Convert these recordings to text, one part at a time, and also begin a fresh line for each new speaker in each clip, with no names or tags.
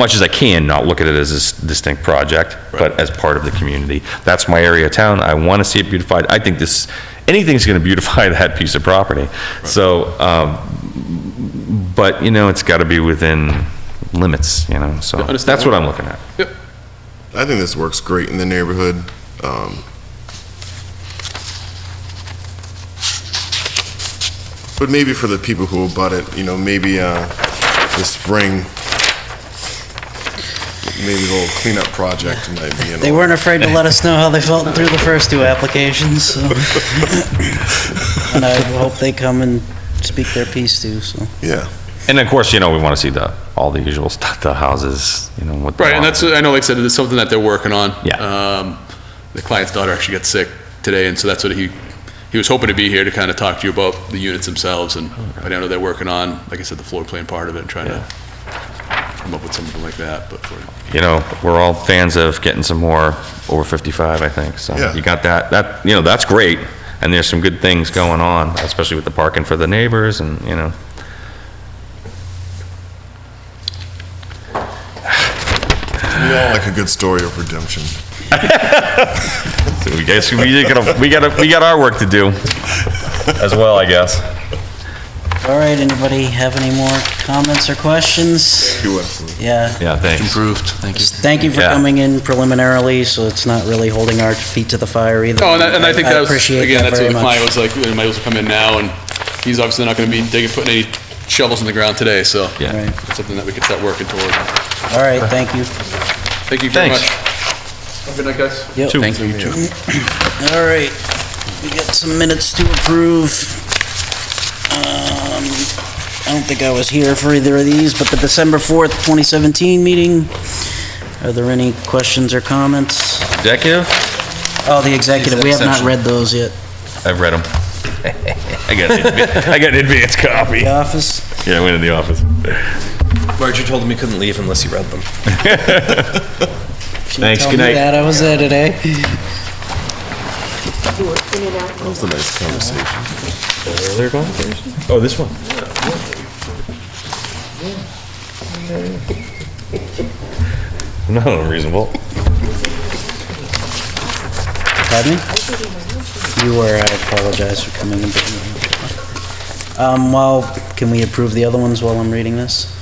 much as I can, not look at it as a s- distinct project, but as part of the community. That's my area of town, I want to see it beautified. I think this, anything's going to beautify that piece of property. So, um, but, you know, it's got to be within limits, you know, so that's what I'm looking at.
I think this works great in the neighborhood. Um, But maybe for the people who abut it, you know, maybe uh, this spring, maybe the little cleanup project might be in.
They weren't afraid to let us know how they felt through the first two applications, so. And I hope they come and speak their piece too, so.
Yeah.
And of course, you know, we want to see the, all the usual stuff, the houses, you know, what. the
Right, and
lots-
that's, I know, like I said, it's something that they're working on.
Yeah.
Um, The client's daughter actually got sick today, and so that's what he, he was hoping to be here to kind of talk to you about the units themselves, and I know they're working on, like I said, the floor plan part of it, and trying to come up with something like that, but for,
You know, we're all fans of getting some more over 55, I think, so.
Yeah.
You got that, that, you know, that's great, and there's some good things going on, especially with the parking for the neighbors and, you know.
We all like a good story of redemption.
So we guess, we gotta, we gotta, we got our work to do as well, I guess.
All right, anybody have any more comments or questions?
You absolutely.
Yeah.
Yeah, thanks.
Thank you for
Yeah.
coming in preliminarily, so it's not really holding our feet to the fire either.
Oh, and I, and I think that was,
appreciate
again,
that
that's what
very
the client
much.
was like, you might as well come in now, and he's obviously not gonna be digging, putting any shovels in the ground today, so.
Yeah.
Right.
it's Something that we could start working toward.
All right, thank you.
Thank you very much.
Thanks.
Have a good night, guys.
Yep.
Thank
you.
All right, we got some minutes to approve. Um, I don't think I was here for either of these, but the December 4th, 2017 meeting. Are there any questions or comments?
Executive,
Oh, the executive, we have not
Exception.
read those yet.
I've read them. I got, an adva- I got an advance copy.
The office?
Yeah, I went in the office.
Roger told him he couldn't leave unless he read them.
She
Thanks,
told
good
me
night.
that, I was there today.
That was a nice conversation.
Oh, this one? I'm not unreasonable.
Pardon me? You were, I apologize for coming in. Um, well, can we approve the other ones while I'm reading this?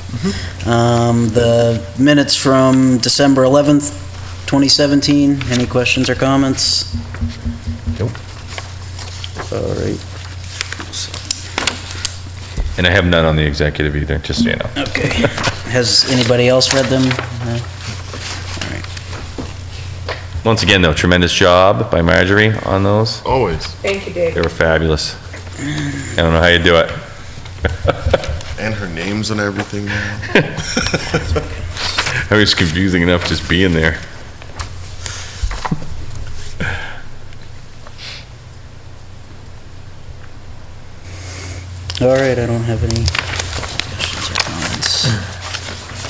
Um, the minutes from December 11th, 2017, any questions or comments? Nope. All right,
And I have none on the executive either, just so you know.
okay. Has anybody else read them? No?
Once again, though, tremendous job by Marjorie on those.
Always.
Thank you, Dave.
They were fabulous. I don't know how you do it.
And her name's on everything now.
It was confusing enough just being there.
All right, I don't have any questions or comments.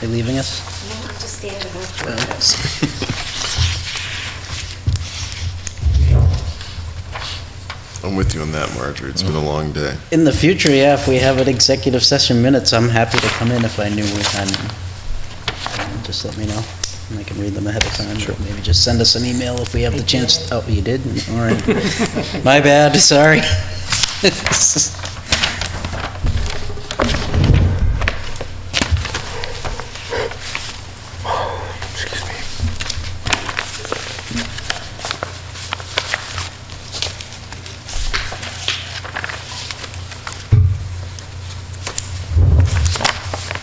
They leaving us?
I'm with you on that, Marjorie. It's been a long day.
In the future, yeah, if we have an executive session minutes, I'm happy to come in if I knew we had. them. Just let me know, and I can read them ahead of time. Sure. Maybe just send us an email if we have the chance. Oh, you did? All right. My bad, sorry. All